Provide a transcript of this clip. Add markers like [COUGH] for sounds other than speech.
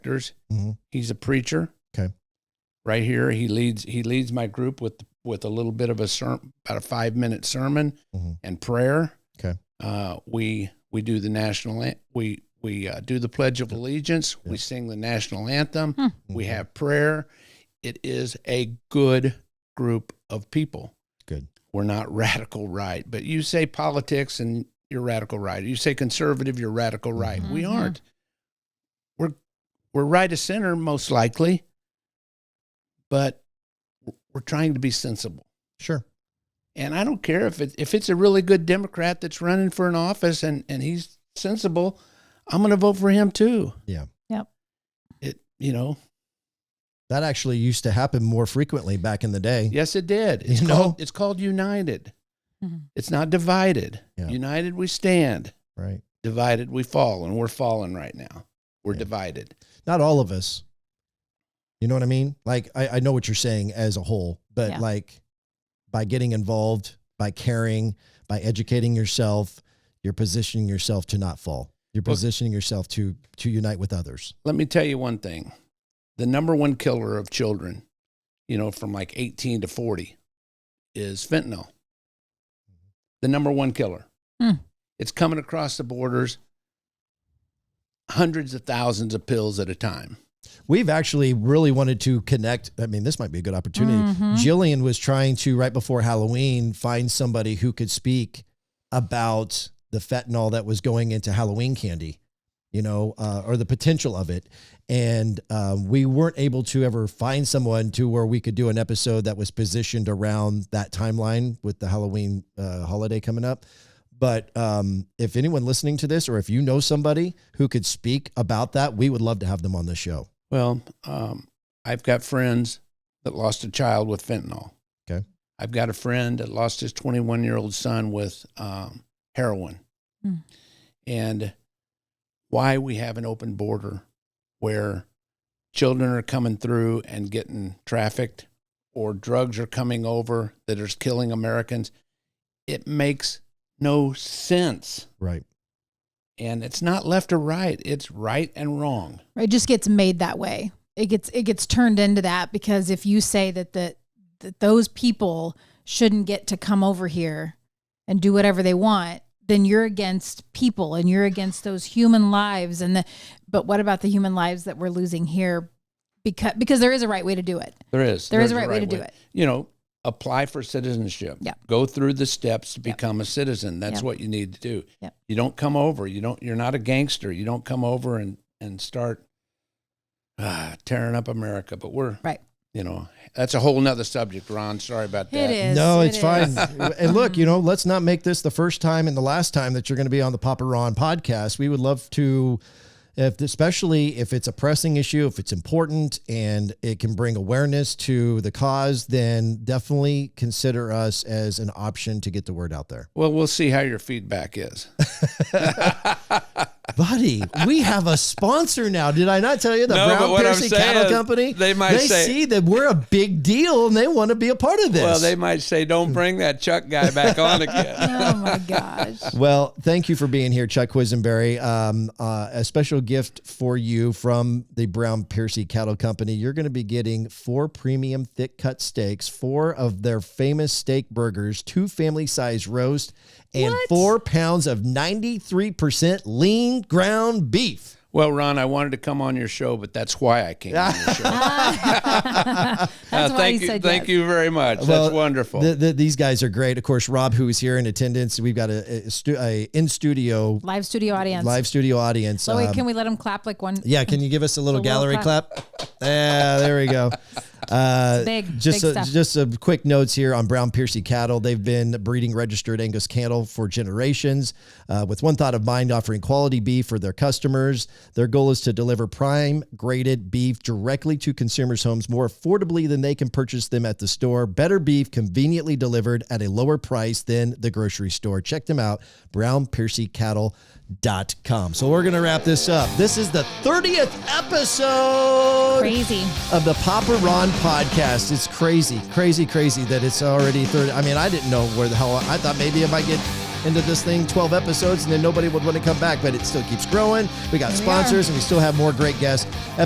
actors. Mhm. He's a preacher. Okay. Right here, he leads he leads my group with with a little bit of a sermon, about a five minute sermon Mhm. and prayer. Okay. Uh, we we do the national an- we we uh, do the Pledge of Allegiance. Yeah. We sing the national anthem. We Mhm. have prayer. It is a good group of people. Good. We're not [LAUGHS] radical right, but you say politics and you're radical right. You say conservative, you're radical Mm-hmm. right. We Mhm. aren't. We're we're right of center most likely, but we're trying to be sensible. Sure. And I don't care if it, if it's a really good Democrat that's running for an office and and he's sensible, I'm going to vote for him too. Yeah. Yep. It you know That actually used to happen more frequently back in the day. Yes, it did. It's You know? called it's called United. Mhm. It's not divided. Yeah. United we stand, Right. divided we fall, and we're fallen right now. We're Yeah. divided. Not all of us. You know what I mean? Like, I, I know what you're saying as a whole, but Yeah. like by getting involved, by caring, by educating yourself, you're positioning yourself to not fall. You're Well- positioning yourself to to unite with others. Let me tell you one thing. The number one killer of children, you know, from like 18 to 40 is fentanyl. The number one killer. Hmm. It's coming across the borders hundreds of thousands of pills at a time. We've actually really wanted to connect. I mean, this might be a good opportunity. Mhm. Jillian was trying to, right before Halloween, find somebody who could speak about the fentanyl that was going into Halloween candy, you know, uh, or the potential of it. And um, we weren't able to ever find someone to where we could do an episode that was positioned around that timeline with the Halloween uh, holiday coming up. But um, if anyone listening to this, or if you know somebody who could speak about that, we would love to have them on the show. Well, um, I've got friends that lost a child with fentanyl. Okay. I've got a friend that lost his 21 year old son with um, heroin. Hmm. And why we have an open border where children are coming through and getting trafficked or drugs are coming over that is killing Americans, it makes no sense. Right. And it's not left or right, it's right and wrong. It just gets made that way. It gets it gets turned into that because if you say that the, that those people shouldn't get to come over here and do whatever they want, then you're against people and you're against those human lives and the but what about the human lives that we're losing here because because there is a right way to do it. There is. There is There's a right way to do it. You know, apply for citizenship. Yeah. Go through the steps to Yeah. become a citizen. That's Yeah. what you need to do. Yeah. You don't come over. You don't. You're not a gangster. You don't come over and and start ah, tearing up America. But we're Right. You know, that's a whole nother subject, Ron. Sorry about that. It is. No, It it's is. fine. and look, you know, let's not make this the first time and the last time that you're going to be on the Papa Ron podcast. We would love to, if especially if it's a pressing issue, if it's important and it can bring awareness to the cause, then definitely consider us as an option to get the word out there. Well, we'll see how your feedback is. Buddy, we have a sponsor now. Did I not tell you the No, but Brown what I'm Piercy Cattle saying, Company? they might say- see that we're a big deal and they want to be a part of this. Well, they might say, "Don't bring that Chuck guy back on [LAUGHS] again." Oh my gosh. Well, thank you for being here, Chuck Quisenberry. Um, uh, a special gift for you from the Brown Piercy Cattle Company. You're going to be getting four premium thick cut steaks, four of their famous steak burgers, two family size roast, and What? four pounds of 93% lean ground beef. well, Ron, I wanted to come on your show, but that's why I came [LAUGHS] on your show. That's why thank he you, said thank yes. you very much. Well, That's wonderful. The, the, these guys are great. Of course, Rob, who is here in attendance, we've got a, a, stu- a in studio, Live studio audience. live studio audience. So wait, um, can we let them clap like one? Yeah, can you give us a little A little gallery clap? Yeah, there we [LAUGHS] go. Uh, Big, just big a, stuff. just a quick notes here on Brown Piercy cattle. They've been breeding registered Angus cattle for generations, uh, with one thought of mind: offering quality beef for their customers. Their goal is to deliver prime graded beef directly to consumers' homes more affordably than they can purchase them at the store. Better beef, conveniently delivered at a lower price than the grocery store. Check them out, brownpiercycattle.com. So we're gonna wrap this up. This is the thirtieth episode Crazy. of the Papa Ron podcast. It's crazy, crazy, crazy that it's already 30. I mean, I didn't know where the hell I thought maybe if I get into this thing 12 episodes and then nobody would want to come back, but it still keeps growing. We got Here we sponsors and we still have more great guests.